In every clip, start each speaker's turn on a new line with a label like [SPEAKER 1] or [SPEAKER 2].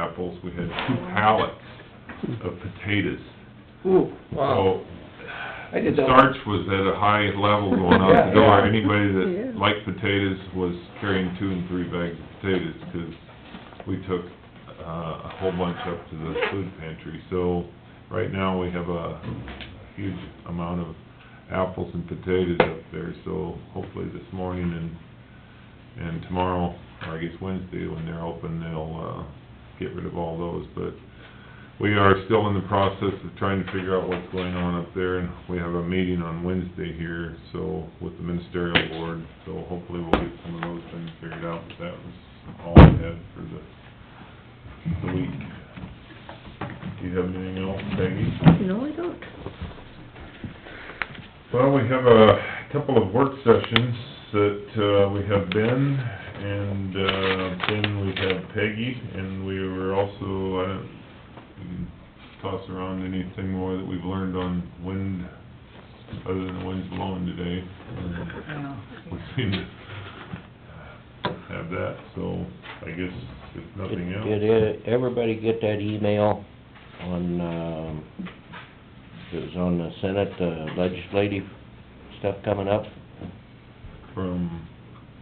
[SPEAKER 1] apples, we had two pallets of potatoes.
[SPEAKER 2] Ooh, wow.
[SPEAKER 1] So,
[SPEAKER 2] I did that.
[SPEAKER 1] starch was at a high level going out the
[SPEAKER 2] Yeah,
[SPEAKER 1] door.
[SPEAKER 2] yeah.
[SPEAKER 1] Anybody
[SPEAKER 3] Yeah.
[SPEAKER 1] that liked potatoes was carrying two and three bags of potatoes, 'cause we took, uh, a whole bunch up to the food pantry. So, right now, we have a huge amount of apples and potatoes up there, so hopefully this morning and, and tomorrow, or I guess Wednesday, when they're open, they'll, uh, get rid of all those, but we are still in the process of trying to figure out what's going on up there, and we have a meeting on Wednesday here, so, with the ministerial board, so hopefully we'll get some of those things figured out, but that was all I had for the, the week. Do you have anything else, Peggy?
[SPEAKER 3] No, I don't.
[SPEAKER 1] Well, we have a couple of work sessions that, uh, we have Ben, and, uh, then we had Peggy, and we were also, I don't, we can toss around anything more that we've learned on wind, other than the wind's blowing today. and We seem to have that, so I guess if nothing else.
[SPEAKER 4] Did did everybody get that email on, um, it was on the Senate uh, legislative stuff coming up?
[SPEAKER 1] From,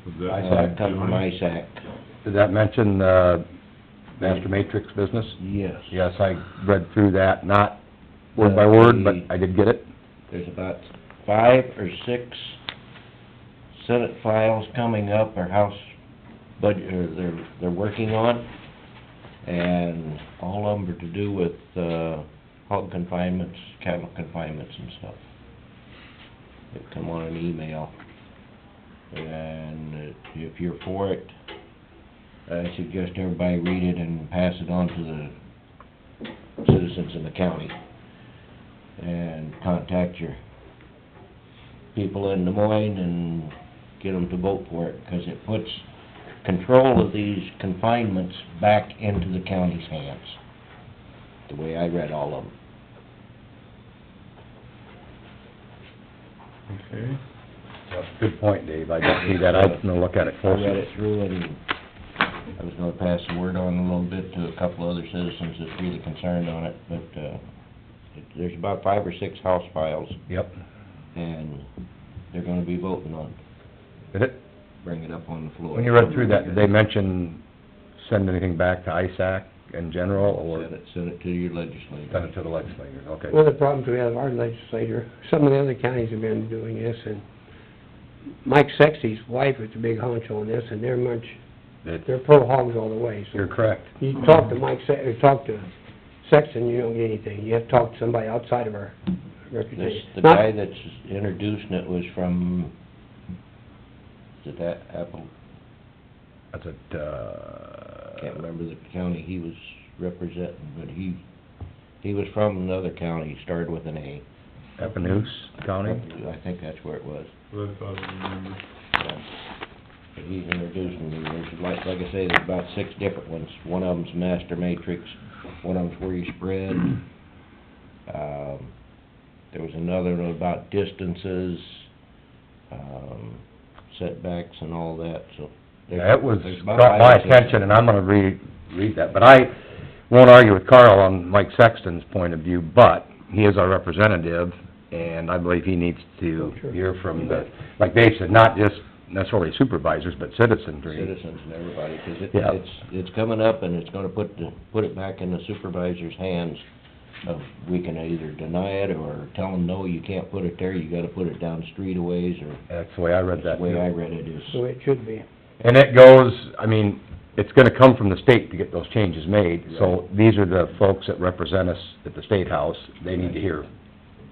[SPEAKER 1] was that?
[SPEAKER 4] Uh, Come from
[SPEAKER 1] Johnny?
[SPEAKER 4] ISAC.
[SPEAKER 5] Did that mention, uh, master matrix business?
[SPEAKER 4] Yes.
[SPEAKER 5] Yes, I read through that, not word by word, but I did get it.
[SPEAKER 4] There's about five or six Senate files coming up, or House budget, or they're, they're working on, and all of them are to do with, uh, hog confinements, cattle confinements and stuff. They come on an email, and if you're for it, I suggest everybody read it and pass it on to the citizens in the county and contact your people in Des Moines and get them to vote for it, because it puts control of these confinements back into the county's hands, the way I read all of them.
[SPEAKER 1] Okay.
[SPEAKER 5] Good point, Dave, I did see that, I'm gonna look at it
[SPEAKER 4] I read
[SPEAKER 5] closer.
[SPEAKER 4] it through and I was gonna pass the word on a little bit to a couple other citizens that's really concerned on it, but, uh, it- there's about five or six house files,
[SPEAKER 5] Yep,
[SPEAKER 4] and they're gonna be voting on,
[SPEAKER 5] did it?
[SPEAKER 4] bring it up on the floor.
[SPEAKER 5] When you read through that, did they mention, send anything back to ISAC in general, or
[SPEAKER 4] Send it, send it to your legislature.
[SPEAKER 5] send it to the legislators, okay?
[SPEAKER 2] One of the problems we have, our legislature, some of the other counties have been doing this, and Mike Sexy's wife is a big honcho on this, and they're much,
[SPEAKER 5] That-
[SPEAKER 2] they're pro hogs all the way, so.
[SPEAKER 5] You're correct.
[SPEAKER 2] You talk to Mike Se- or talk to Sexton, you don't get anything, you have to talk to somebody outside of our
[SPEAKER 4] This,
[SPEAKER 2] reputation.
[SPEAKER 4] the guy that's introducing it was from, is it that Apple,
[SPEAKER 5] That's it,
[SPEAKER 4] can't
[SPEAKER 5] uh,
[SPEAKER 4] remember the county he was representing, but he, he was from another county, started with an A.
[SPEAKER 5] Epinoose County?
[SPEAKER 4] I think that's where it was.
[SPEAKER 1] Well, I thought I remembered.
[SPEAKER 4] yeah. But he's introducing me, there's like, like I say, there's about six different ones. One of them's master matrix, one of them's where you spread. Um, there was another one about distances, um, setbacks and all that, so. there's-
[SPEAKER 5] Yeah, it was,
[SPEAKER 4] there's about
[SPEAKER 5] brought my
[SPEAKER 4] five or six.
[SPEAKER 5] attention, and I'm gonna re, read that, but I won't argue with Carl on Mike Sexton's point of view, but he is our representative, and I believe he needs to
[SPEAKER 2] Oh, sure.
[SPEAKER 5] hear from the, like Dave said, not just necessarily supervisors, but citizenry.
[SPEAKER 4] Citizens and everybody, 'cause it,
[SPEAKER 5] Yeah.
[SPEAKER 4] it's, it's coming up and it's gonna put, the- put it back in the supervisor's hands of, we can either deny it or tell them, no, you can't put it there, you gotta put it down street a ways or
[SPEAKER 5] That's the way I read
[SPEAKER 4] The
[SPEAKER 5] that.
[SPEAKER 4] way I
[SPEAKER 5] too.
[SPEAKER 4] read it is,
[SPEAKER 2] So it should be.
[SPEAKER 5] And it goes, I mean, it's gonna come from the state to get those changes made, so these are the folks that represent us at the State House, they need to hear.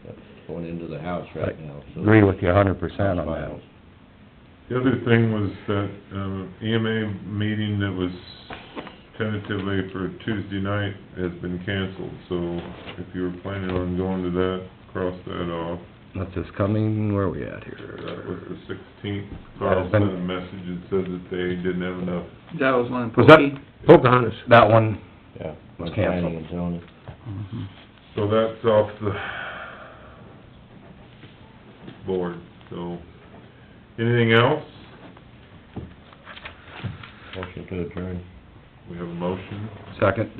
[SPEAKER 4] it's going into the house right now, so.
[SPEAKER 5] Agree with you a hundred percent on that.
[SPEAKER 4] Files.
[SPEAKER 1] The other thing was that, um, EMA meeting that was tentatively for Tuesday night has been canceled, so if you were planning on going to that, cross that off.
[SPEAKER 5] That's just coming, where are we at here?
[SPEAKER 1] That was the sixteenth, Carl sent a message and said that they didn't have enough.
[SPEAKER 6] That was one in
[SPEAKER 5] Was that-
[SPEAKER 6] Pokey.
[SPEAKER 2] Pocahontas.
[SPEAKER 5] That one,
[SPEAKER 4] Yeah.
[SPEAKER 5] It's canceled.
[SPEAKER 4] Planning and zoning.
[SPEAKER 5] Mm-hmm.
[SPEAKER 1] So that's off the board, so, anything else?
[SPEAKER 4] Motion to adjourn.
[SPEAKER 1] We have a motion?
[SPEAKER 5] second.